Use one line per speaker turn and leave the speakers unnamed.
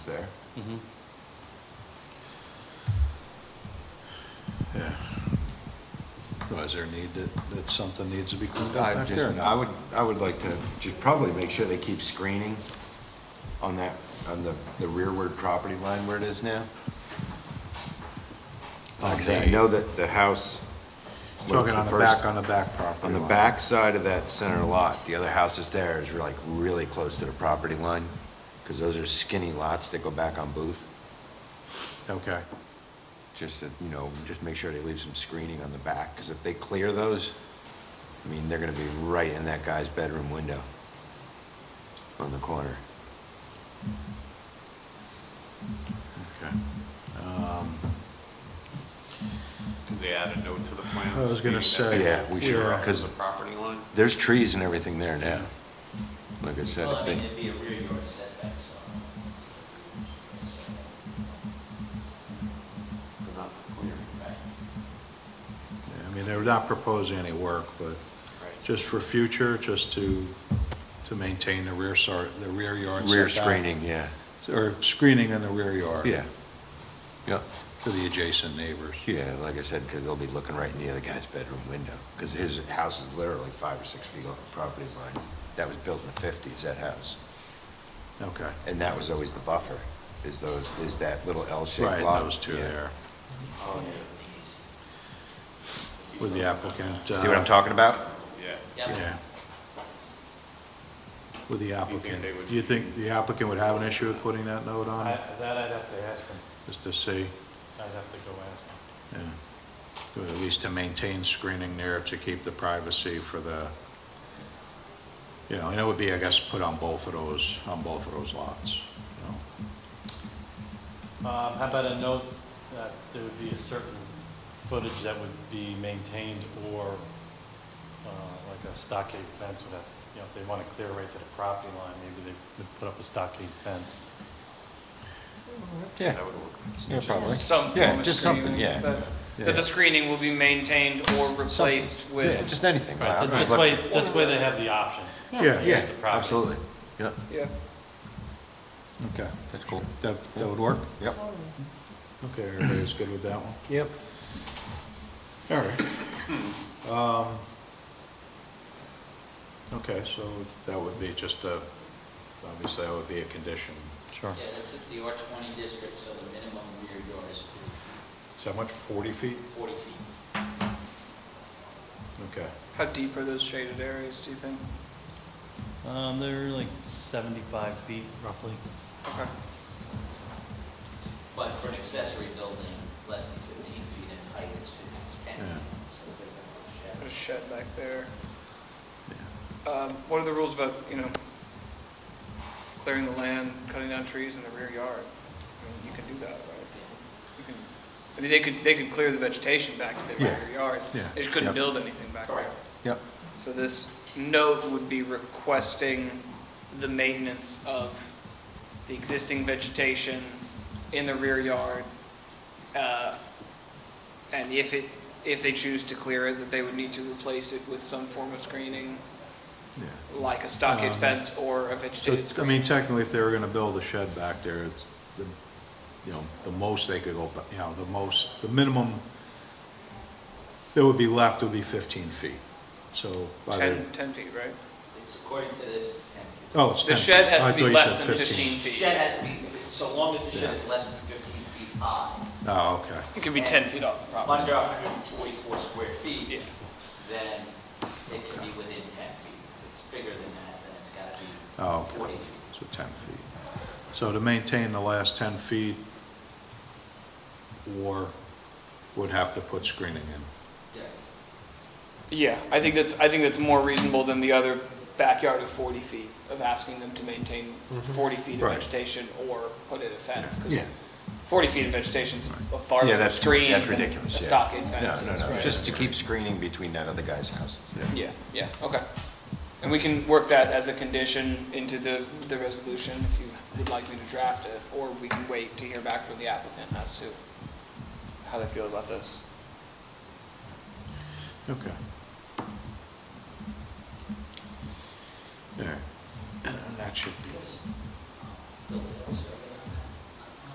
there.
Mhm.
Yeah.
Well, Is there a need that, that something needs to be cleaned up
I
back there?
just,
or not?
I would, I would like to just probably make sure they keep screening on that, on the, the rearward property line where it is now. Because I
Okay.
know that the house, what's
Talking
the
on the
first?
back, on the back property
On the
line.
back side of that center lot, the other houses there is like really close to the property line, because those are skinny lots that go back on Booth.
Okay,
Just to, you know, just make sure they leave some screening on the back, because if they clear those, I mean, they're gonna be right in that guy's bedroom window on the corner.
okay. Um,
Did they add a note to the plans?
I was gonna
stating
say,
that they
yeah, we should,
were up to
'cause-
The property line?
There's trees and everything there now. Like I said,
Well,
I
I mean,
think,
it'd be a rear yard setback, so. I don't know, it's a
They're not clear.
rear yard setback, Right.
yeah, I mean, they're not proposing any work, but
Right.
just for future, just to, to maintain the rear sar, the rear yard
rear
setback.
screening, yeah.
Or screening in the rear yard.
Yeah. Yeah,
To the adjacent neighbors.
yeah, like I said, because they'll be looking right in the other guy's bedroom window, because his house is literally five or six feet off the property line. That was built in the fifties, that house.
Okay.
And that was always the buffer, is those, is that little L-shaped
Right,
lot.
those two
Yeah.
there
Oh, yeah.
with the applicant.
See what
uh,
I'm talking about?
Yeah.
Yeah. With the applicant.
they would-
Do you think the applicant would have an issue with putting that note on,
I- That I'd have to ask him.
just to see?
I'd have to go ask him.
Yeah. Or At least to maintain screening there to keep the privacy for the, you know, and it would be, I guess, put on both of those, on both of those lots, you know?
Um, How about a note that there would be a certain footage that would be maintained or uh, like a stockade fence would have, you know, if they want to clear right to the property line, maybe they would put up a stockade fence.
Yeah,
That would work.
yeah, probably.
some
Yeah,
form of
just something,
screening,
yeah.
That
Yeah.
that the screening will be maintained or replaced
Yeah,
with,
just anything.
Right,
I'm
this-
just
This way,
looking-
this way they have the option.
Yeah,
Yeah,
the property.
absolutely. Yep,
yeah.
okay.
that's cool.
That, that would work?
Yep.
Okay, everybody's good with that one?
Yep.
All right. Um, Okay, so that would be just a, obviously, that would be a condition.
Sure.
Yeah, that's at the R twenty district, so the minimum rear yard is
Is that much, 40 feet?
forty feet.
Okay.
How deep are those shaded areas, do you think?
Um, They're like 75 feet roughly.
Okay.
But for an accessory building, less than fifteen feet in height, it's fifteen, it's ten
Yeah.
feet. So they're gonna
Put
have
a
a shed.
shed back there.
Yeah.
Um, what are the rules about, you know, clearing the land, cutting down trees in the rear yard? I mean, you can do that, right? You can, I mean, they could, they could clear the vegetation back to their
Yeah.
rear yard.
Yeah.
They just couldn't
Yep.
build anything back there.
Correct.
Yep,
So this note would be requesting the maintenance of the existing vegetation in the rear yard. uh, And if it, if they choose to clear it, that they would need to replace it with some form of screening,
Yeah.
like a stockade
Um,
fence or a
So,
vegetated
I
screen.
mean, technically, if they were gonna build a shed back there, it's the, you know, the most they could go, ba- you know, the most, the minimum that would be left would be fifteen feet, so. by the-
10, 10 feet, right?
It's according to this, it's ten feet.
Oh, it's
The
10
shed
feet.
has
I
to be
thought you
less
said
than 15
The
feet.
shed has to be, so long as the shed is less than fifteen feet high,
Oh, okay,
It could be 10 feet off the property.
under hundred and forty-four square
Yeah.
feet, then it can be within ten feet. If it's bigger than that, then it's gotta be
oh,
forty
okay,
feet.
so ten feet. So to maintain the last ten feet, or would have to put screening in.
Yeah.
Yeah, I think that's, I think that's more reasonable than the other backyard of 40 feet, of asking them to maintain 40 feet of
Right.
vegetation or put in a fence. 'cause
Mm-hmm. Yeah.
40 feet of vegetation is a far
Yeah,
better
that's-
screen
that's
than
ridiculous,
A
yeah.
stockade
no,
fence.
no, no,
right?
just to keep screening between that other guy's house that's there.
Yeah, yeah, okay. And we can work that as a condition into the, the resolution if you would like me to draft it, or we can wait to hear back from the applicant as to how they feel about this.
Okay. There, that should be.
Because, um, Build it also.